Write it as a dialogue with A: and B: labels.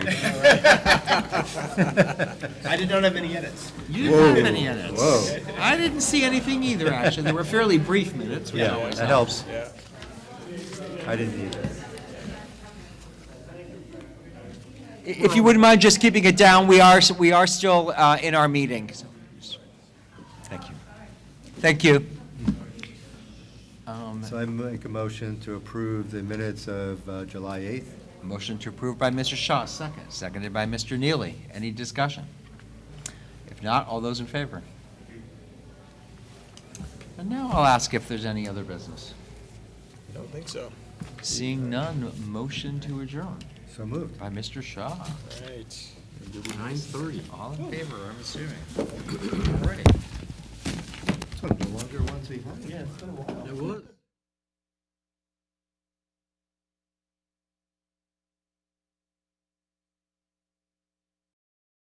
A: I did not have any edits.
B: You didn't have any edits.
C: Whoa.
B: I didn't see anything either, actually. They were fairly brief minutes, which
C: Yeah,
B: always
C: that
B: helps.
C: helps. I didn't either.
D: If you wouldn't mind just keeping it down, we are, we are still uh, in our meeting.
C: Thank you.
D: Thank you.
C: So I make a motion to approve the minutes of uh, July 8th.
D: Motion to approve by Mr. Shaw, second. Seconded by Mr. Neely. Any discussion? If not, all those in favor? And now I'll ask if there's any other business.
A: I don't think so.
D: Seeing none, motion to adjourn
C: So moved.
D: by Mr. Shaw.
A: Right.
B: Nine thirty.
D: All in favor, I'm assuming.
C: It's one of the longer ones we've had.
B: It was.